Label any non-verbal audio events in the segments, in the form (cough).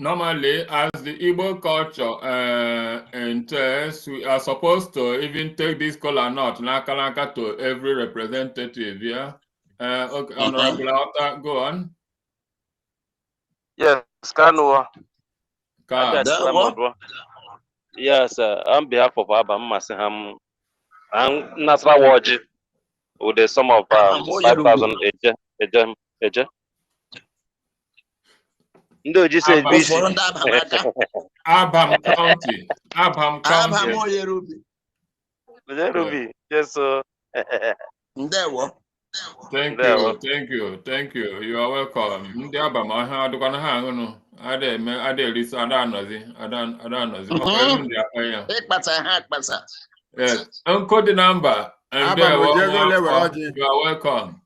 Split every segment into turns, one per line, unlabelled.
normally as the Igbo culture uh, entails, we are supposed to even take this kola nut nakalaka to every representative, yeah? Uh, okay,
Mhm.
Honorable Auta, go on.
Yes, Kanua. Ah,
Ka-
That one?
Yes, uh, on behalf of Abba Masiham and Nasra Waji, with the sum of um,
Ah, what you do?
5,000 eje, eje, eje. Ndị oji si
Abba.
ebizi.
Ụfọdụ ndị
(laughs)
abama aka.
Abham County, Abham
Abama
County.
onye rubi.
Rubi, yes, so.
Ndewo.
Thank
There.
you, thank you, thank you. You are welcome. Ndị Abham ahịa adịkwana ha aṅụnụ. Ada eme, ada erisa, ada anọzi, ada ada anọzi. Ọ bụ elu ndị akpa ya.
Ịkpata ha akpata.
Yes, encode the number. and
Abba
there, one
Mojego
more
Lewe
call.
Oji.
You are welcome.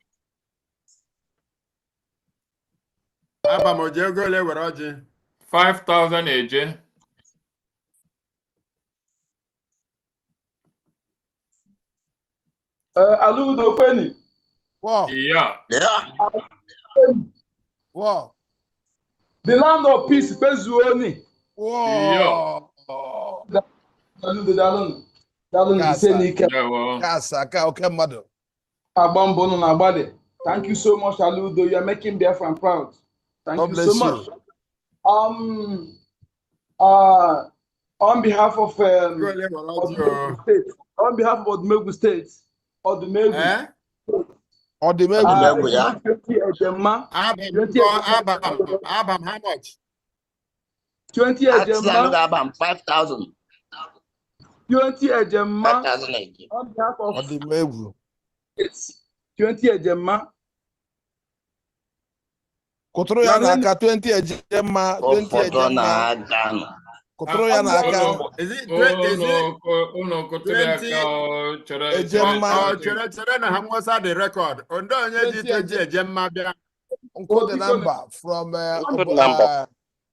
Abba Mojego lewere ọjị.
Five thousand AJ.
Oh.
Eh, Aludo Penny,
War,
Yeah,
Lee-
war,
the land of peace, Pezuoni.
war.
Aludo Dalun, Dalun
Yes,
ise
sir.
n'ike
there were.
Kasa ka oke mmadụ.
agba mbọ unu na-agbadị. Thank you so much, Aludo. You are making Biafra proud. Thank
God
you so
bless
much.
you.
Um, uh, on behalf of um,
Ego lewere ọjị o.
Odumegwu State, on behalf of Odumegwu State, Odumegwu.
Eh?
Ọ dị m egwu.
ah,
Odumegwu, ya?
Ekwensu Ejemma,
Abba m kọ- Abba m- Abba m oh, how much?
20
Atịla ndị
Ejemma,
abam 5,000.
20 Ejemma,
5,000 again.
on behalf
Ọ
of
dị m egwu.
States, 20 Ejemma,
Kụtụrụ ya n'aka 20 eje mma, 20
Ụfọdụ
eje mma.
na-aga nọ.
Kụtụrụ ya n'aka
Is it
Oh,
twe- is it-
Unu kụtụrụ
Twenty-
aka o, chere.
Ejemma.
oh, chere chere na ha nwesa the record. Ondo onye ji twenty eje mma bịa.
nkụ dị na mba from eh,
Nkụ dị
ọbụ-
na mba.
eh,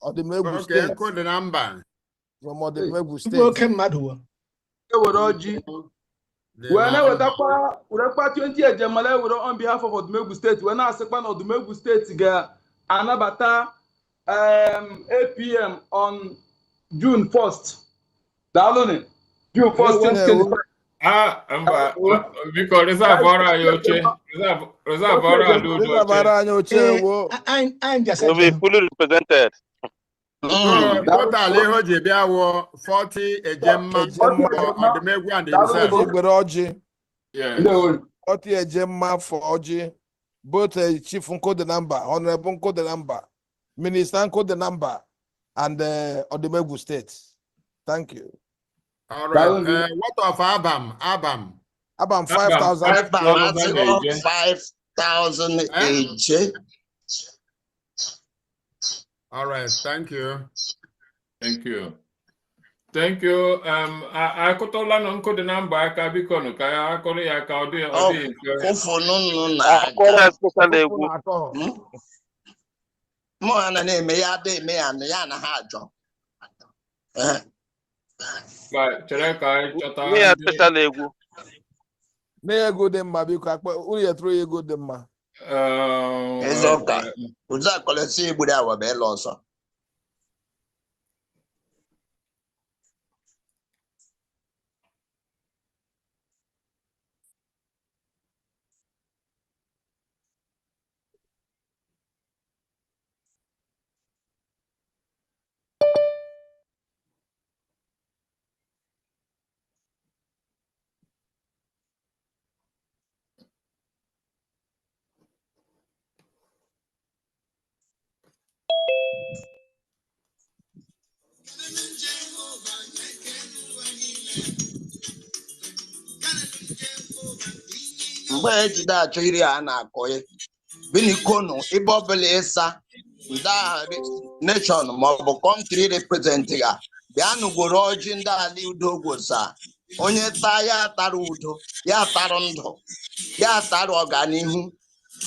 Ọdịmegwu
Okay,
steeti.
nkụ dị na mba.
From Ọdịmegwu
Igwe oke
steeti.
mmadụ wo.
ewere ọjị
Dị na-
wee na-ewetakwa werekwa 20 ejemala ewere on behalf of odumegwu steeti wee na-asịkwa na odumegwu steeti ga-anabata um, apm on june 1st daalụnụ june 1st
Ewe na ewe.
2025.
Ah, mba, biko reserve ọrụ anyị oche. Reserve reserve ọrụ anyị
Ndị
oche.
dabara anyị oche
Ee,
wo.
a- anyị anyị jasa
Will be
njem.
fully represented.
Mm.
Ah,
So, Oh, total ihe o ji bịa wụ 40 eje mma
Eje mma.
for Odumegwu and himself.
Ọtị egbere ọjị.
Yes.
Ndewo.
Ọtị eje mma for ọjị. Both eh, Chief Nkụ dị na mba, Honorable Nkụ dị na mba, Minister Nkụ dị na mba, and eh, Ọdịmegwu steeti. Thank you.
All
That
right.
will be-
Uh, what of Abam? Ah, Abam.
About
Abba,
five thousand.
five
Abam
thousand
atịghọ
eje.
5,000
Eh?
eje.
All right. Thank you.
Thank you. Thank you. Um, I akụtụla na nkụ dị na mba aka biko nụ ka ya akụrụ ya ka ọ dị ọ dị mfe.
Ụfọdụ nọ
Akwara
na-aga.
especially egwu.
Hmm? Mụ ha na na-eme ya ada eme ya na ya na ha ajọ. Eh,
Ba- Chere ka e anyị chọta
Me
ndị-
especially egwu.
Na ego dị mma biko akpa unu ya tụrụ ya ego dị mma.
Um,
Eze ụka. Ụzọ akọlọsị egburu awa bụ ịlụ ọzọ. mgbe ejide achọ iri a na-akọ ya binikonu ebe ọbụla ịsa ndị agha nation maọbụ kọntri reprezentị ya bịa nụgoro ọjị ndị ala udo gwosa onye taa ya tara udo ya tara ndụ ya tara ọganihu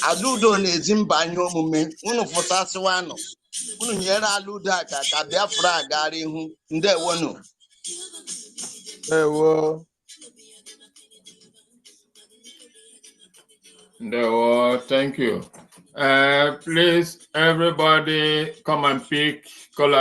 ala udo na-ezi mba anyị omume unu fụtasịwanụ unu nyere ala udo aka ka biafra gara ihu ndewonu
Ewo.
Ndewo, thank you. Uh, please, everybody, come and pick color